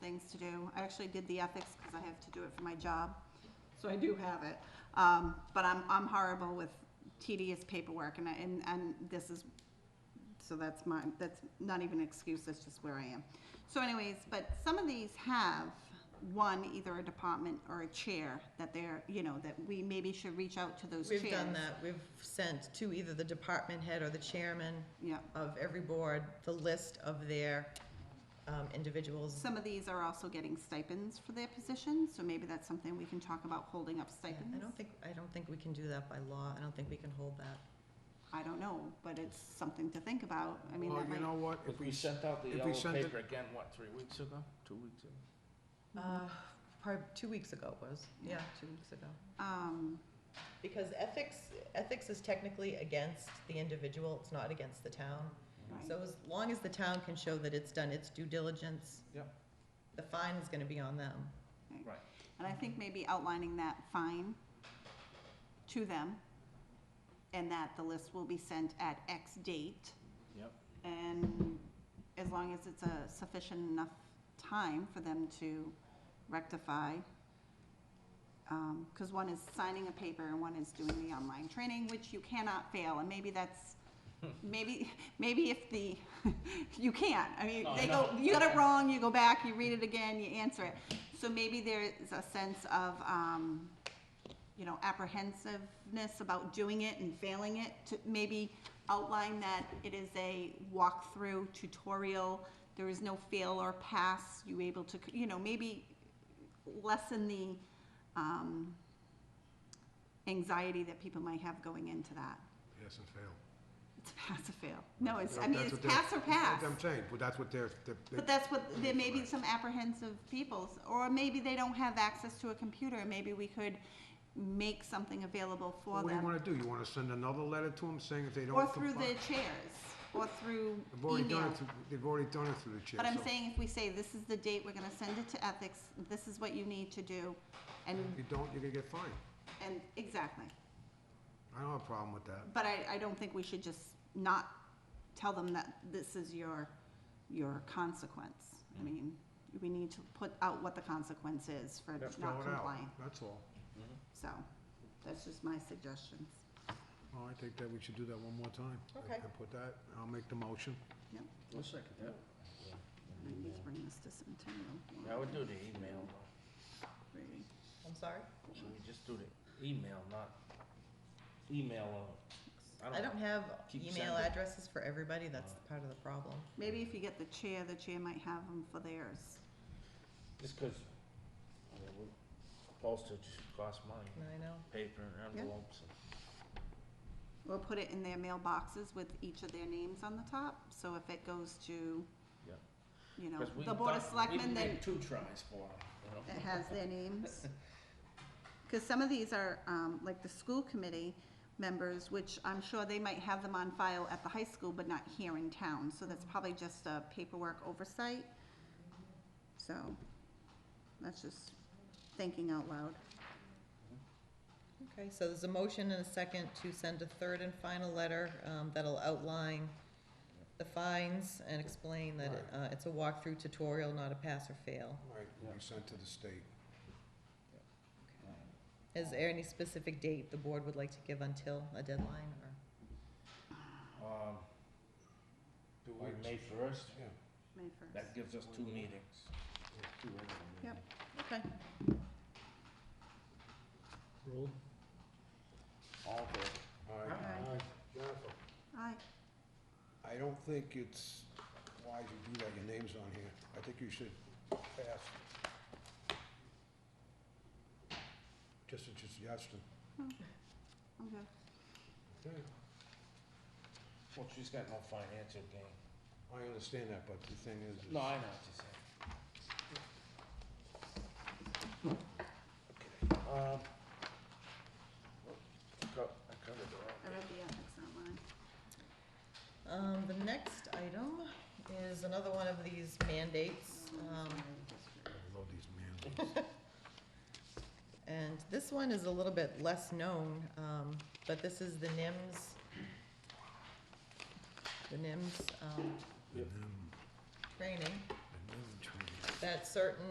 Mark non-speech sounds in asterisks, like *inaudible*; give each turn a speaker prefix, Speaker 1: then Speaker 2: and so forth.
Speaker 1: things to do. I actually did the ethics because I have to do it for my job, so I do have it. Um, but I'm, I'm horrible with tedious paperwork and, I- and, and this is, so that's my, that's not even an excuse, that's just where I am. So anyways, but some of these have one, either a department or a chair that they're, you know, that we maybe should reach out to those chairs.
Speaker 2: We've done that, we've sent to either the department head or the chairman
Speaker 1: Yeah.
Speaker 2: of every board, the list of their um, individuals.
Speaker 1: Some of these are also getting stipends for their positions, so maybe that's something we can talk about, holding up
Speaker 2: Yeah,
Speaker 1: stipends.
Speaker 2: I don't think, I don't think we can do that by law, I don't think we can hold that.
Speaker 1: I don't know, but it's something to think about. I mean,
Speaker 3: Well,
Speaker 1: that
Speaker 3: you
Speaker 1: might,
Speaker 3: know what,
Speaker 4: If we sent out the
Speaker 3: if we
Speaker 4: yellow
Speaker 3: sent it-
Speaker 4: paper again, what, three weeks ago, two weeks ago?
Speaker 2: Uh, Probably two weeks ago it was, yeah,
Speaker 1: Yeah.
Speaker 2: two weeks ago.
Speaker 1: um,
Speaker 2: Because ethics, ethics is technically against the individual, it's not against the town.
Speaker 1: right.
Speaker 2: So as long as the town can show that it's done its due diligence.
Speaker 4: Yep.
Speaker 2: The fine is gonna be on them.
Speaker 1: And I think maybe outlining that fine to them and that the list will be sent at X date.
Speaker 4: Yep.
Speaker 1: And as long as it's a sufficient enough time for them to rectify. Um, cause one is signing a paper and one is doing the online training, which you cannot fail, and maybe that's,
Speaker 4: Hmm.
Speaker 1: maybe, maybe if the, *laughs* you can't, I mean,
Speaker 4: No, Oh, I
Speaker 1: they go,
Speaker 4: know.
Speaker 1: you got it wrong, you go back, you read it again, you answer it. So maybe there's a sense of, um, you know, apprehensiveness about doing it and failing it, to maybe outline that it is a walkthrough tutorial, there is no fail or pass, you able to, you know, maybe lessen the, um, anxiety that people might have going into that.
Speaker 3: pass and fail.
Speaker 1: It's a pass or fail. No, it's, I
Speaker 3: That-
Speaker 1: mean, it's
Speaker 3: that's what they're-
Speaker 1: pass or pass.
Speaker 3: that's what I'm saying, but that's what they're, they're-
Speaker 1: But
Speaker 3: they-
Speaker 1: that's what, there may be some apprehensive people, or maybe they don't have access to a computer, maybe we could make something available for
Speaker 3: what do you
Speaker 1: them.
Speaker 3: wanna do? You wanna send another letter to them saying if they
Speaker 1: Or
Speaker 3: don't
Speaker 1: through the
Speaker 3: comply?
Speaker 1: chairs, or through
Speaker 3: They've already done
Speaker 1: email.
Speaker 3: it, through- they've already done it through the chair.
Speaker 1: But I'm
Speaker 3: so
Speaker 1: saying if we say, this is the date, we're gonna send it to ethics, this is what you need to do, and,
Speaker 3: If you don't, you're gonna get fined.
Speaker 1: and, exactly.
Speaker 3: I don't have a problem with that.
Speaker 1: But I, I don't think we should just not tell them that this is your, your consequence.
Speaker 4: Mm.
Speaker 1: I mean, we need to put out what the consequence is for
Speaker 3: Fill
Speaker 1: not
Speaker 3: it out,
Speaker 1: complying.
Speaker 3: That's all.
Speaker 1: So, that's just my suggestions.
Speaker 4: Mm.
Speaker 3: Well, I think that we should do that one more time.
Speaker 2: Okay.
Speaker 3: And put that, I'll make the motion.
Speaker 4: I'll second that.
Speaker 1: I need to bring this to Centennial.
Speaker 4: I would do the email,
Speaker 1: Really.
Speaker 2: I'm sorry?
Speaker 4: should we just do the email, not email, uh,
Speaker 2: I don't have
Speaker 4: Keep
Speaker 2: email
Speaker 4: sending.
Speaker 2: addresses for everybody, that's part of the problem.
Speaker 1: Maybe if you get the chair, the chair might have them for theirs.
Speaker 4: Just cause, I mean, we- postage costs money,
Speaker 2: I know.
Speaker 4: paper and
Speaker 1: Yeah.
Speaker 4: envelopes, and-
Speaker 1: Or put it in their mailboxes with each of their names on the top, so if it goes to,
Speaker 4: Yeah.
Speaker 1: you know,
Speaker 4: cause we've
Speaker 1: the Board of
Speaker 4: done-
Speaker 1: Selectmen,
Speaker 4: we've
Speaker 1: then
Speaker 4: made two tries for 'em, you know?
Speaker 1: it has their names. Because some of these are, um, like the school committee members, which I'm sure they might have them on file at the high school, but not here in town, so that's probably just a paperwork oversight. So, that's just thinking out loud.
Speaker 2: Okay, so there's a motion and a second to send a third and final letter um, that'll outline the fines and explain that it, uh, it's a walkthrough tutorial, not a pass or fail.
Speaker 3: Right, we sent to the state.
Speaker 2: Is there any specific date the board would like to give until a deadline or?
Speaker 4: Um,
Speaker 3: Two
Speaker 4: by
Speaker 3: weeks.
Speaker 4: May first,
Speaker 3: Yeah.
Speaker 1: May first.
Speaker 4: that gives us two meetings.
Speaker 1: Yep.
Speaker 2: Okay.
Speaker 3: Rule?
Speaker 4: All good.
Speaker 3: Aye.
Speaker 1: Aye.
Speaker 3: Jennifer,
Speaker 1: Aye.
Speaker 3: I don't think it's wise you do that, your name's on here. I think you should pass. Just a suggestion.
Speaker 1: I'm good.
Speaker 3: Okay.
Speaker 4: Well, she's got no financial gain.
Speaker 3: I understand that, but the thing is. is-
Speaker 4: No, I know what you're saying. Okay, um, I co- I covered it all.
Speaker 1: I read the ethics online.
Speaker 2: Um, The next item is another one of these mandates. um,
Speaker 3: I love these
Speaker 4: *laughs*
Speaker 3: mandates.
Speaker 2: And this one is a little bit less known, um, but this is the NIMS, the NIMS um,
Speaker 3: And then-
Speaker 2: training.
Speaker 3: and then try to-
Speaker 2: that certain